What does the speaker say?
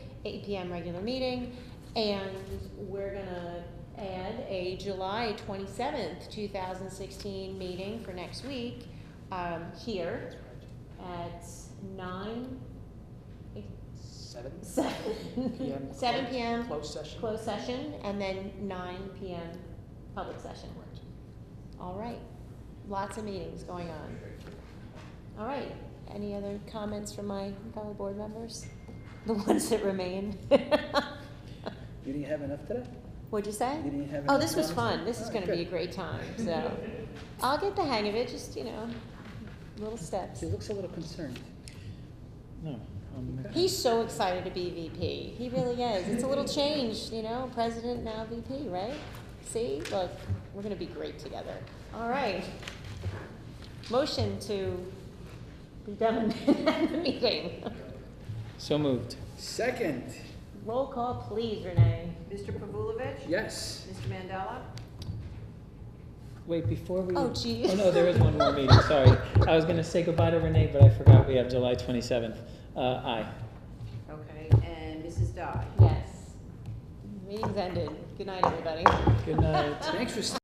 eight PM regular meeting, and we're gonna add a July twenty-seventh, two thousand sixteen meeting for next week, um, here at nine, Seven seven, PM. seven PM, Closed session. closed session, and then nine PM, public session. Correct. All right, lots of meetings going on. All right, any other comments from my fellow board members? The ones that remain? You didn't have enough today? What'd you say? You didn't have Oh, enough this was time? fun, this is All gonna right, be a good. great time, so. I'll get the hang of it, just, you know, little steps. He looks a little concerned. No. um, He's so excited to be VP, he really is, it's a little change, you know, president now VP, right? See, look, we're gonna be great together, all right. Motion to be done the meeting. So moved. Second, Roll call, please, Renee. Mr. Pavulovich? yes. Mr. Mandela? Wait, before we. Oh, gee. Oh, no, there is one more meeting, sorry. I was gonna say goodbye to Renee, but I forgot we have July twenty-seventh. Uh, aye. Okay, and Mrs. Dye? Yes. Meeting's ended. Good night, everybody. Good night. Thanks for